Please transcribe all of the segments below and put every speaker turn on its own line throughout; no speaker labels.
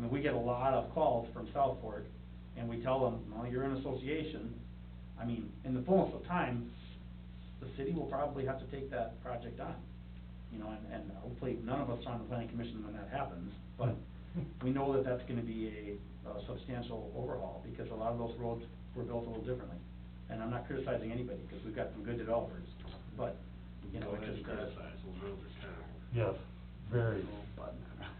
mean, we get a lot of calls from South Fork, and we tell them, well, you're an association. I mean, in the fullness of time, the city will probably have to take that project on. You know, and, and hopefully none of us are on the planning commission when that happens, but we know that that's gonna be a a substantial overhaul, because a lot of those roads were built a little differently. And I'm not criticizing anybody, because we've got some good developers, but, you know, it just, uh,
those roads are terrible.
Yes, very.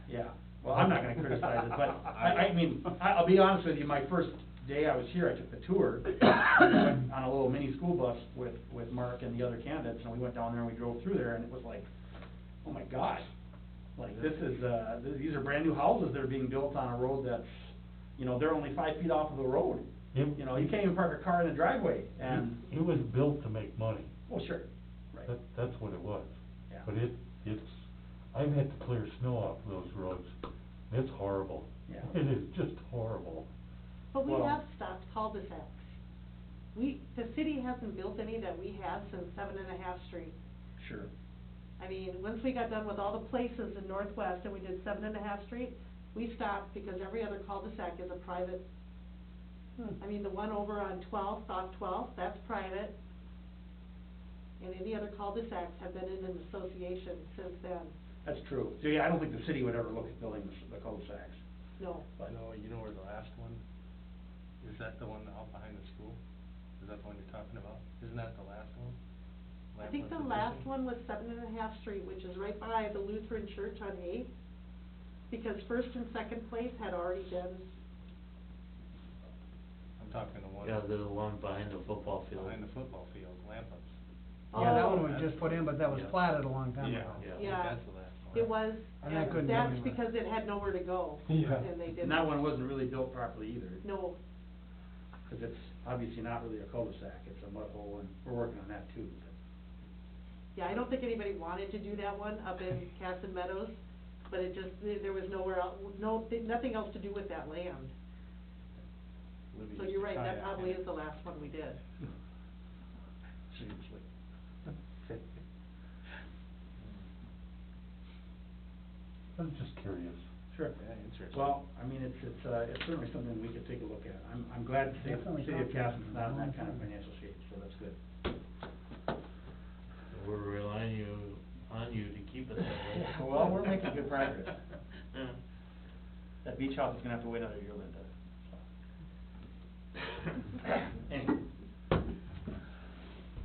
yeah, well, I'm not gonna criticize it, but I, I mean, I, I'll be honest with you, my first day I was here, I took the tour. We went On a little mini school bus with, with Mark and the other candidates, and we went down there and we drove through there, and it was like, oh my gosh. Like, this is, uh, th- these are brand-new houses that are being built on a road that's, you know, they're only five feet off of the road.
It-
You know, you can't even park a car in the driveway, and,
It it was built to make money.
well, sure, right,
That, Mm-hmm. that's what it was.
yeah.
But it, it's, I've had to clear snow off those roads. It's horrible.
Yeah.
It is just horrible.
But we
Well-
have stopped cul-de-sacs. We, the city hasn't built any that we have since Seven and a Half Street.
Sure.
I mean, once we got done with all the places in Northwest and we did Seven and a Half Street, we stopped because every other cul-de-sac is a private. I mean, the one over on Twelfth, off Twelfth, that's private. And any other cul-de-sacs have been in an association since then,
That's true. So, yeah, I don't think the city would ever look at building the, the cul-de-sacs,
no.
but.
No, you know where the last one, is that the one out behind the school? Is that the one you're talking about? Isn't that the last one?
I think the last one was Seven and a Half Street, which is right by the Lutheran Church on Eighth, because first and second place had already been,
I'm talking the one
Yeah, the one behind the football field.
behind the football field, Lampums.
Yeah, that one
Oh.
was just put in, but that was
Yeah.
platted a long time ago.
I think
Yeah.
That's the last one.
it was,
And that couldn't
and
go
that's
anywhere.
because it had nowhere to go,
Yeah.
and they didn't.
And that one wasn't really built properly either,
No,
because it's obviously not really a cul-de-sac, it's a mud hole, and we're working on that too.
yeah, I don't think anybody wanted to do that one up in Casson Meadows, but it just, there- there was nowhere else, no, nothing else to do with that land.
Libby
So
used
you're
to
right, that
kayak
probably
in
is
it.
the last one we did.
Seriously.
I was just curious.
Sure.
Yeah, interesting.
Well, I mean, it's, it's, uh, it's certainly something we could take a look at. I'm, I'm glad to say that the
Definitely
city of
talked about
Caston's
it.
not in that kind of financial shape, so that's good.
We're relying you, on you to keep it that way.
Well, we're making good progress.
Yeah.
That beach house is gonna have to wait another year, Linda. Anyway,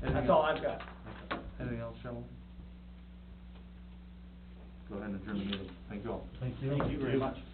that's
Anything
all
else?
I've got.
Anything else, Sheldon? Go ahead and adjourn the meeting. Thank you all.
Thank you.
Thank you very much.